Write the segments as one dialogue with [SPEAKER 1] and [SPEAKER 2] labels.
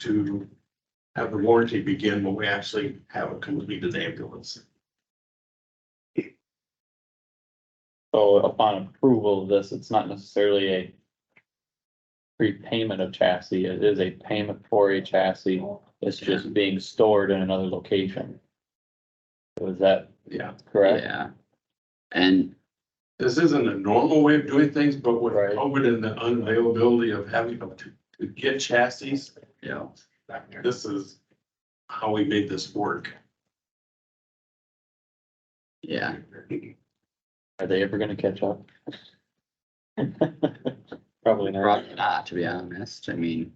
[SPEAKER 1] to have the warranty begin when we actually have a completed ambulance.
[SPEAKER 2] So upon approval of this, it's not necessarily a prepayment of chassis, it is a payment for a chassis. It's just being stored in another location. Was that
[SPEAKER 1] Yeah,
[SPEAKER 2] correct?
[SPEAKER 3] Yeah. And
[SPEAKER 1] this isn't a normal way of doing things, but with
[SPEAKER 2] Right.
[SPEAKER 1] COVID and the unavailability of having to, to get chassis,
[SPEAKER 3] you know,
[SPEAKER 1] this is how we made this work.
[SPEAKER 3] yeah,
[SPEAKER 2] Are they ever gonna catch up? Probably not.
[SPEAKER 3] probably not, to be honest. I mean,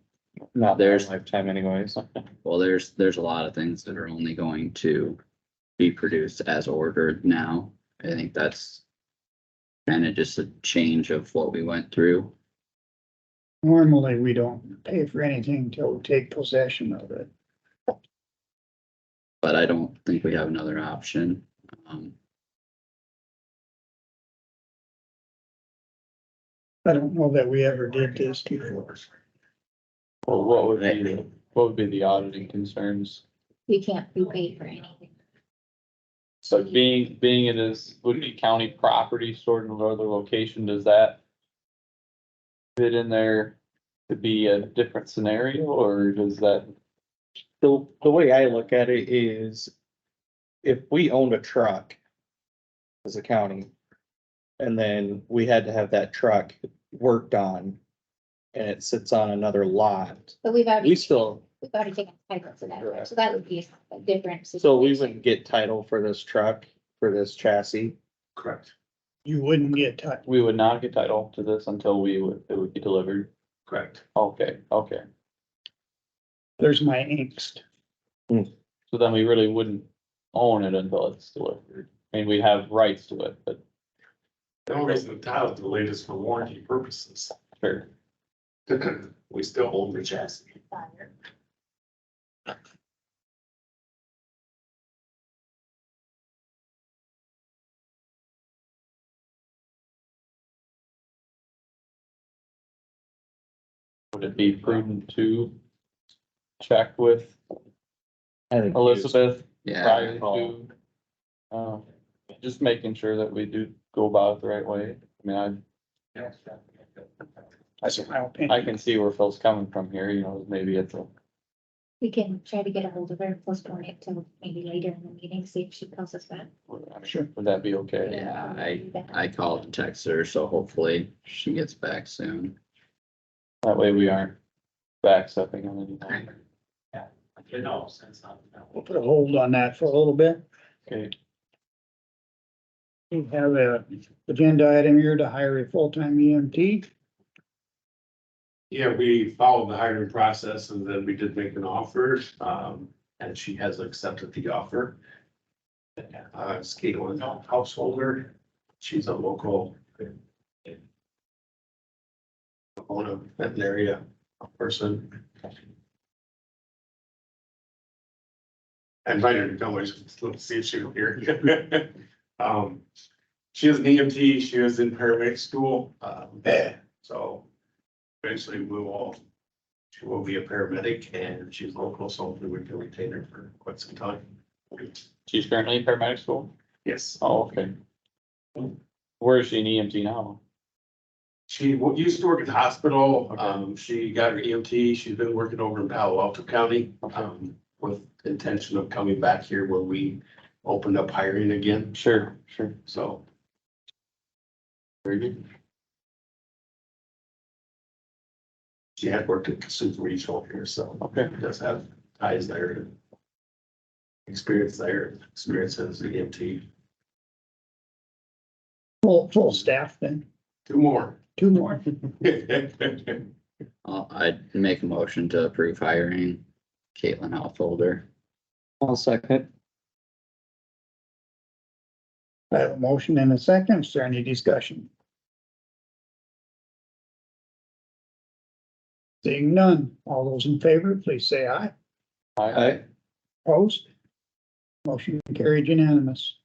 [SPEAKER 2] Not
[SPEAKER 3] There's-
[SPEAKER 2] lifetime anyways.
[SPEAKER 3] well, there's, there's a lot of things that are only going to be produced as ordered now. I think that's kind of just a change of what we went through.
[SPEAKER 4] Normally, we don't pay for anything till we take possession of it.
[SPEAKER 3] but I don't think we have another option. Um,
[SPEAKER 4] I don't know that we ever did this before.
[SPEAKER 2] Well, what would be, the- what would be the auditing concerns?
[SPEAKER 5] You can't be paid for anything.
[SPEAKER 2] So being, being it is, would be county property stored in another location, does that fit in there to be a different scenario, or does that,
[SPEAKER 6] the, the way I look at it is if we owned a truck as a county, and then we had to have that truck worked on, and it sits on another lot,
[SPEAKER 5] But we've already,
[SPEAKER 6] we
[SPEAKER 5] we've
[SPEAKER 6] still,
[SPEAKER 5] already taken title to that, so that would be a different.
[SPEAKER 6] so we
[SPEAKER 5] situation.
[SPEAKER 6] wouldn't get title for this truck, for this chassis.
[SPEAKER 1] Correct,
[SPEAKER 4] You wouldn't get touched.
[SPEAKER 2] we would not get title to this until we would, it would be delivered?
[SPEAKER 1] correct.
[SPEAKER 2] Okay, okay,
[SPEAKER 4] There's my angst.
[SPEAKER 2] so then we really wouldn't own it until it's delivered, I mean, we have rights to it, but
[SPEAKER 1] The only reason the title delayed is for warranty purposes.
[SPEAKER 2] sure.
[SPEAKER 1] We still own the chassis.
[SPEAKER 2] Would it be prudent to check with
[SPEAKER 6] I think
[SPEAKER 2] Elizabeth
[SPEAKER 3] yeah,
[SPEAKER 2] prior to? Uh, just making sure that we do go about it the right way. I mean,
[SPEAKER 4] That's my
[SPEAKER 2] I, I
[SPEAKER 4] opinion.
[SPEAKER 2] can see where Phil's coming from here, you know, maybe it's a,
[SPEAKER 5] We can try to get a hold of her, and postpone it till maybe later in the meeting, see if she calls us back.
[SPEAKER 2] I mean,
[SPEAKER 4] Sure.
[SPEAKER 2] would that be okay?
[SPEAKER 3] yeah, I, I called and texted her, so hopefully she gets back soon.
[SPEAKER 2] That way we aren't backstepping on anything.
[SPEAKER 1] You know, since I'm.
[SPEAKER 4] We'll put a hold on that for a little bit.
[SPEAKER 2] Okay,
[SPEAKER 4] We have a agenda item here to hire a full-time E EMT.
[SPEAKER 1] Yeah, we followed the hiring process and then we did make an offer, um, and she has accepted the offer. Uh, it's Caitlin Householder, she's a local. Owner, veterinary uh, person. I invited her to come, I just wanted to see if she was here. Um, she is an EMT, she was in paramedic school, um, so eventually we will, she will be a paramedic and she's local, so hopefully we can retain her for quite some time.
[SPEAKER 2] she's currently in paramedic school?
[SPEAKER 1] Yes,
[SPEAKER 2] Oh, okay. Where is she in EMT now?
[SPEAKER 1] she w- used to work at the hospital. Um, she got her EMT. She's been working over in Palo Alto County, um, with intention of coming back here when we opened up hiring again,
[SPEAKER 2] Sure, sure.
[SPEAKER 1] so.
[SPEAKER 2] Very good.
[SPEAKER 1] She had worked at Kasuth Regional here, so
[SPEAKER 2] Okay,
[SPEAKER 1] does have ties there. Experience there, experience as an EMT.
[SPEAKER 4] Full, full staff then,
[SPEAKER 1] Two more.
[SPEAKER 4] two more.
[SPEAKER 3] I'll, I'd make a motion to approve hiring Caitlin Householder.
[SPEAKER 6] I'll second.
[SPEAKER 4] I have a motion and a second. Is there any discussion? Seeing none. All those in favor, please say aye.
[SPEAKER 2] I,
[SPEAKER 6] I,
[SPEAKER 4] Opposed? Motion carried unanimous.